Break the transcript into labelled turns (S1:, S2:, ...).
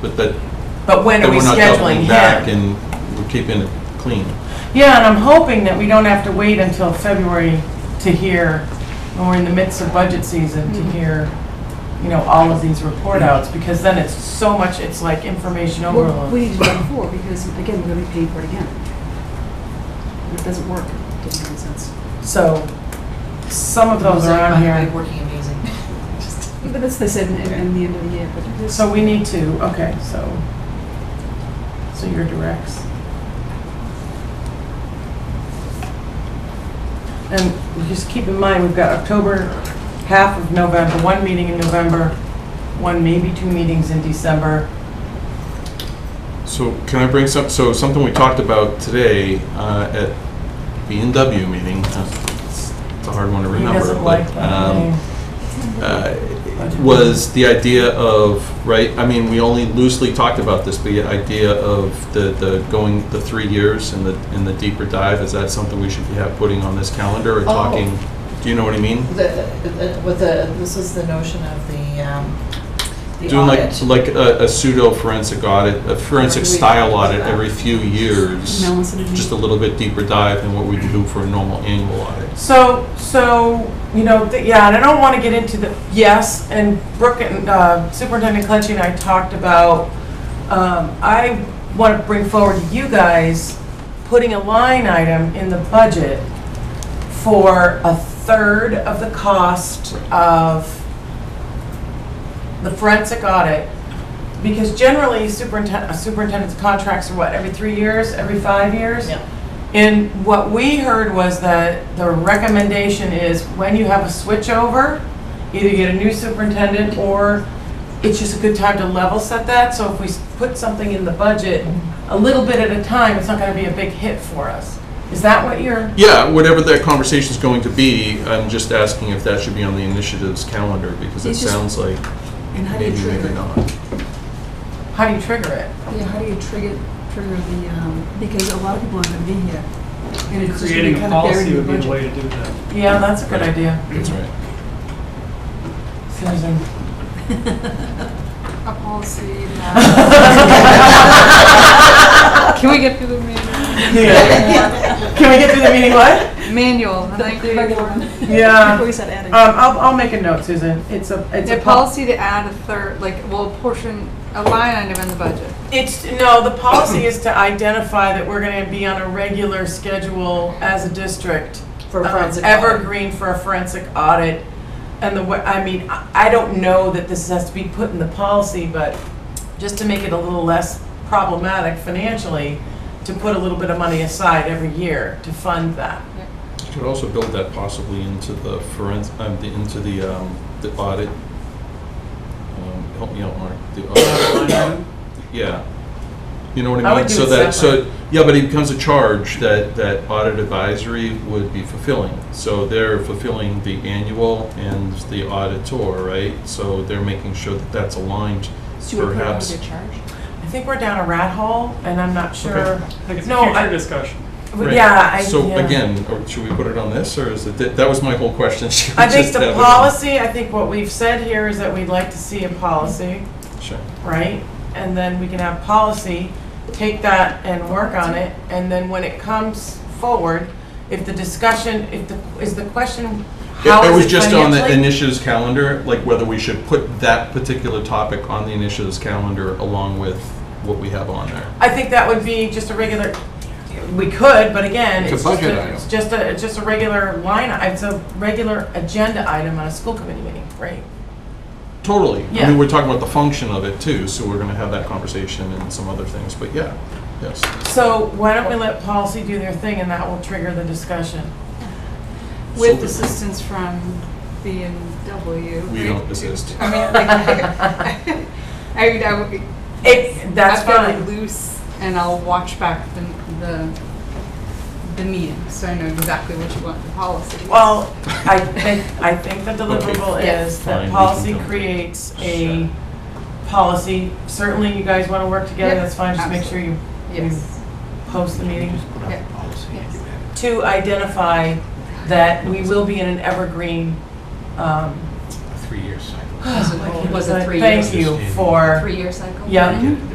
S1: But that,
S2: But when
S1: that
S2: are we
S1: we're not
S2: scheduling
S1: doubling back
S2: him?
S1: and we're keeping it clean.
S3: Yeah, and I'm hoping that we don't have to wait until February to hear, when we're in the midst of budget season,
S4: Mm-hmm.
S3: to hear, you know, all of these report outs, because then it's so much, it's like information
S4: Well, We
S3: overload.
S4: need to do it before, because again, we're gonna be paying for it again. It doesn't work, It doesn't make sense.
S3: So, some of those are on
S2: Mosaic, by the way,
S3: here.
S2: Working amazing. Just-
S4: But that's, they said in, in in the end of the year, but it is.
S3: So we need to, okay, so, so your directs. And just keep in mind, we've got October, half of November, one meeting in November, one, maybe two meetings in December.
S1: So can I bring some, so something we talked about today uh, at the NW meeting, uh, it's it's a hard one to
S3: He
S1: remember.
S3: doesn't
S1: but,
S3: like that.
S1: um,
S3: name.
S1: uh, was the idea of, right, I mean, we only loosely talked about this, but the idea of the, the going, the three years and the, and the deeper dive, is that something we should be have putting on this
S3: Oh.
S1: calendar or talking? Do you know what I mean?
S2: the- the- With the, this is the notion of the, um, the
S1: Doing like,
S2: audit.
S1: like a a pseudo forensic audit, a forensic
S2: Every-
S1: style audit every few years.
S4: Melissa, did you-
S1: Just a little bit deeper dive than what we do for a normal annual audit.
S3: So, so, you know, th- yeah, and I don't want to get into the, yes, and Brooke and uh, Superintendent Clenchey and I talked about, um, I want to bring forward to you guys, putting a line item in the budget for a third of the cost of the forensic audit. Because generally superintendent, superintendent's contracts are what, every three years, every five years?
S2: Yeah.
S3: And what we heard was that the recommendation is when you have a switchover, either get a new superintendent or it's just a good time to level set that. So if we s- put something in the budget, a little bit at a time, it's not gonna be a big hit for us. Is that what you're,
S1: Yeah, whatever that conversation's going to be, I'm just asking if that should be on the initiatives calendar, because it
S4: It's just-
S1: sounds like
S4: And how do you
S1: maybe, maybe
S4: trigger?
S1: not.
S3: how do you trigger it?
S4: Yeah, how do you trigger, trigger the, um, because a lot of people aren't gonna be here. and it's just gonna be
S5: Creating a
S4: kind of buried
S5: policy
S4: in the
S5: would be the
S4: budget.
S5: way to do that.
S3: Yeah, that's a good idea,
S1: That's right.
S3: Susan.
S6: a policy that can we get through the manual?
S3: Can we get through the meeting, what?
S6: Manual, and then
S4: The
S6: create
S4: regular
S6: one.
S4: one.
S3: Yeah.
S4: Before we said adding.
S3: Um, I'll, I'll make a note, Susan. It's a, it's
S6: The
S3: a. pol-
S6: policy to add a third, like, well, a portion, a line item in the budget.
S3: It's, no, the policy is to identify that we're gonna be on a regular schedule as a district.
S2: For
S3: um,
S2: forensic audit.
S3: Evergreen for a forensic audit. And the, wa- I mean, I I don't know that this has to be put in the policy, but just to make it a little less problematic financially, to put a little bit of money aside every year to fund that.
S1: You could also build that possibly into the forensic, um, the, into the, um, the audit. Um, Help me out, Mark, the audit. Yeah. You know what
S3: I
S1: I mean?
S3: would do
S1: So
S3: it
S1: that,
S3: separate.
S1: so, yeah, but it becomes a charge that, that audit advisory would be fulfilling. So they're fulfilling the annual and the auditor, right? So they're making sure that that's aligned perhaps.
S3: I think we're down a rat hole, and I'm not sure.
S5: I think it's
S3: No,
S5: a
S3: I-
S5: future discussion.
S1: Right.
S3: Yeah, I,
S1: So
S3: yeah.
S1: again, or should we put it on this, or is it, that- that was my whole question. Should we
S3: I think
S1: just
S3: the
S1: have it on-
S3: policy, I think what we've said here is that we'd like to see a policy,
S1: Sure.
S3: right? And then we can have policy, take that and work on it, and then when it comes forward, if the discussion, if the, is the question, how
S1: It
S3: is
S1: was
S3: it
S1: just on the
S3: financially?
S1: initiatives calendar, like whether we should put that particular topic on the initiatives calendar along with what we have on there.
S3: I think that would be just a regular, we could, but again,
S7: It's a
S3: it's just
S7: budget
S3: a,
S7: item.
S3: it's just a, it's just a regular line, it's a regular agenda item on a school committee meeting, right?
S1: Totally. I
S3: Yeah.
S1: mean, we're talking about the function of it too, so we're gonna have that conversation and some other things, but yeah, yes.
S3: So why don't we let policy do their thing, and that will trigger the discussion?
S6: With
S1: So-
S6: assistance from B and W.
S1: We don't assist.
S6: I mean, like, I mean, I would be.
S3: It, that's
S6: I've got it
S3: fine.
S6: loose, and I'll watch back the, the, the meeting, so I know exactly what you want the policy.
S3: Well, I think, I think the deliverable
S1: Okay,
S3: is
S1: fine,
S3: that
S1: we
S3: policy
S1: can go.
S3: creates a policy. Certainly, you guys want to work together,
S6: Yeah,
S3: that's fine, just make sure you
S6: Yes.
S3: post the meeting.
S7: Just put out a policy and you have it.
S3: To identify that we will be in an evergreen um,
S7: A three-year cycle.
S3: was it, was it three years?
S4: Thank you for.
S3: Three-year cycle?
S4: Yeah.
S1: Get it.